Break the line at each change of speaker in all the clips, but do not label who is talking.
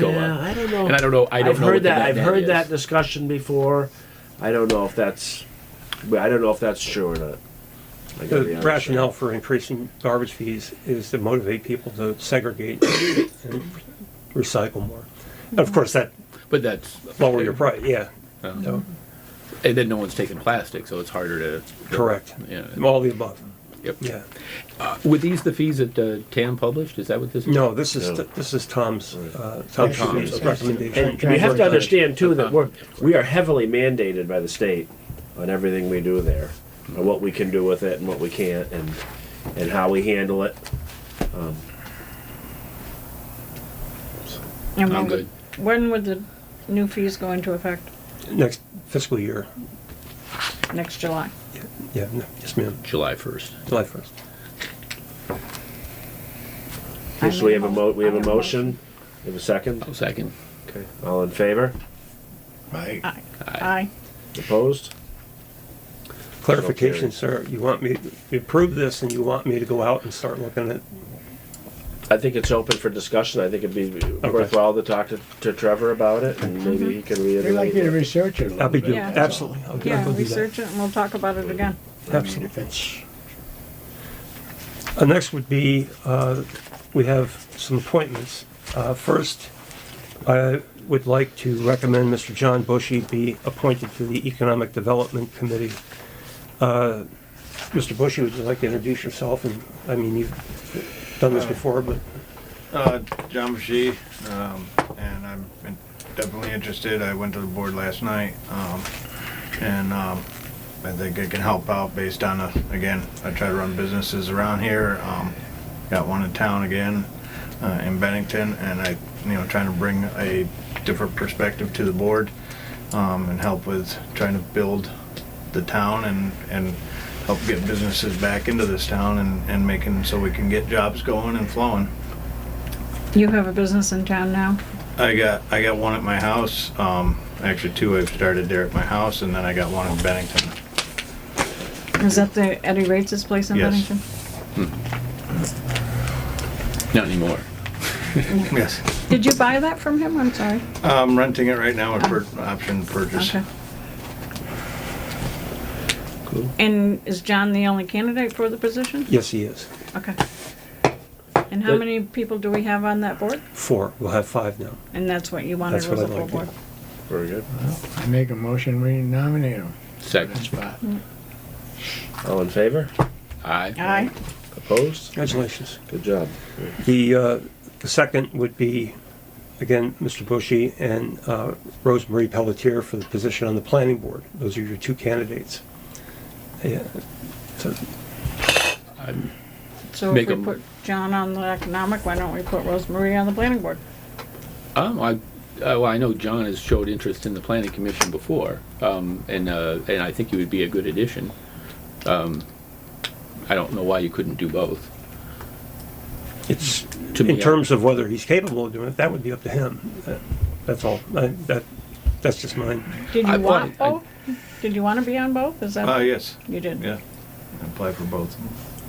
go
Yeah,
up.
I don't know.
And I don't know. I don't
have
know.
heard
what the
that.
net
I've
net
heard
is.
that discussion before. I don't know if that's. but I don't know if that's true or not. I gotta be
The
honest.
rationale for increasing garbage fees is to motivate people to segregate and recycle more. And of course, that
But that's
lower your price, yeah.
Yeah.
So,
And then no one's taking plastic, so it's harder to.
Correct.
Yeah.
All the above,
Yep.
yeah.
Were these the fees that uh, TAM published? Is that what this? is?
No, this is,
No.
this is Tom's, uh, Tom
Tom's.
Tom's recommendation.
And we have to understand too that we're we are heavily mandated by the state on everything we do there, and what we can do with it and what we can't, and and how we handle it.
And
I'm
when would- When would the new fees go into effect?
Next fiscal year,
Next July?
yeah, no, yes, ma'am,
July first.
July 1st.
I
So we
make
have a mo we have
I
a motion. We have a second.
I'll second.
Okay. All in favor?
Right.
Aye. Aye.
Opposed?
Clarification, sir, you want me, you approve this and you want me to go out and start looking at,
I think it's open for discussion. I think it'd be worthwhile to talk to, to Trevor about it, and maybe he can
We'd Mm-hmm. like you to
reiterate.
research it a little
I'll be,
bit.
doing-
Yeah.
absolutely. I'll- I'll
Yeah,
go do that.
research it and we'll talk about it again.
I mean, if it's,
Uh, Next would be, uh, we have some appointments. Uh, First, I would like to recommend Mr. John Bushy be appointed to the Economic Development Committee. Uh, Mr. Bushy, would you like to introduce yourself? And, I mean, you've done this before, but
Uh, John Bashy, um, and I'm in- definitely interested. I went to the board last night, um, and, um, I think I can help out based on, a- again, I try to run businesses around here. Um, got one in town again, uh, in Bennington, and I, you know, trying to bring a different perspective to the board, um, and help with trying to build the town and, and help get businesses back into this town and, and making, so we can get jobs going and flowing.
You have a business in town now?
I got I got one at my house. Um, actually, two I've started there at my house, and then I got one in Bennington.
Is that the Eddie Rates' place in
Yes.
Bennington?
Not anymore.
Yes.
Did you buy that from him? I'm sorry.
I'm renting it right now. A per- option purchase.
Okay. And is John the only candidate for the position?
yes, he is.
Okay. And how
That-
many people do we have on that board?
Four, we'll have five now.
And that's what you wanted
That's
was
what
a
I'd
full
like,
board?
Very good.
I make a motion, we nominate him.
Second.
spot.
All in favor?
Aye.
Aye.
Opposed?
Congratulations.
Good job.
The, uh, the second would be, again, Mr. Bushy and uh, Rosemarie Pelletier for the position on the planning board. Those are your two candidates. Yeah, so
So if
Make
we
a-
put John on the economic, why don't we put Rosemarie on the planning board?
Um, I, uh, well, I know John has showed interest in the planning commission before, um, and uh, and I think he would be a good addition. Um, I don't know why you couldn't do both.
It's,
To
in
me, I-
terms of whether he's capable of doing it, that would be up to him. That- That's all. I- That, that's just mine.
Did
I
you want
wanted- I-
both? Did you want to be on both? Is
Oh
that,
yes.
you did?
Yeah. Apply for both.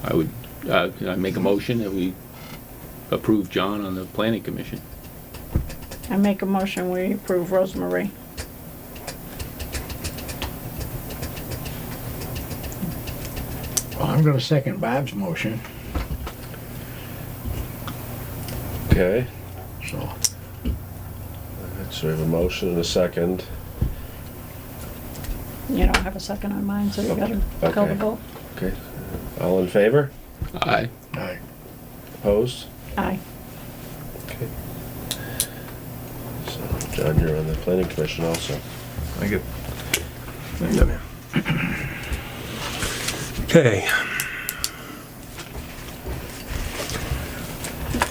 I would. Uh, can I make a motion that we approve John on the planning commission.
I make a motion, we approve Rosemarie.
Well, I'm gonna second Bob's motion,
Okay.
so.
Alright, So we have a motion and a second.
You don't have a second on mine, so you gotta call
Okay.
the vote.
Okay. All in favor?
Aye.
Aye.
Opposed?
Aye.
Okay. So John, you're on the planning commission also.
Thank you.
Okay.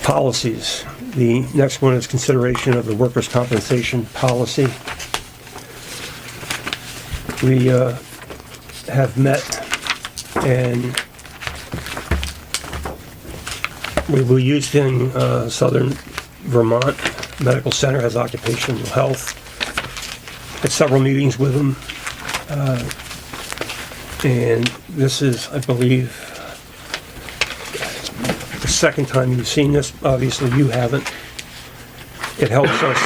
Policies. The next one is consideration of the workers' compensation policy. We uh, have met and we were used in uh, southern Vermont. Medical Center has occupational health. Had several meetings with them. And this is, I believe, the second time you've seen this. Obviously, you haven't. it helps us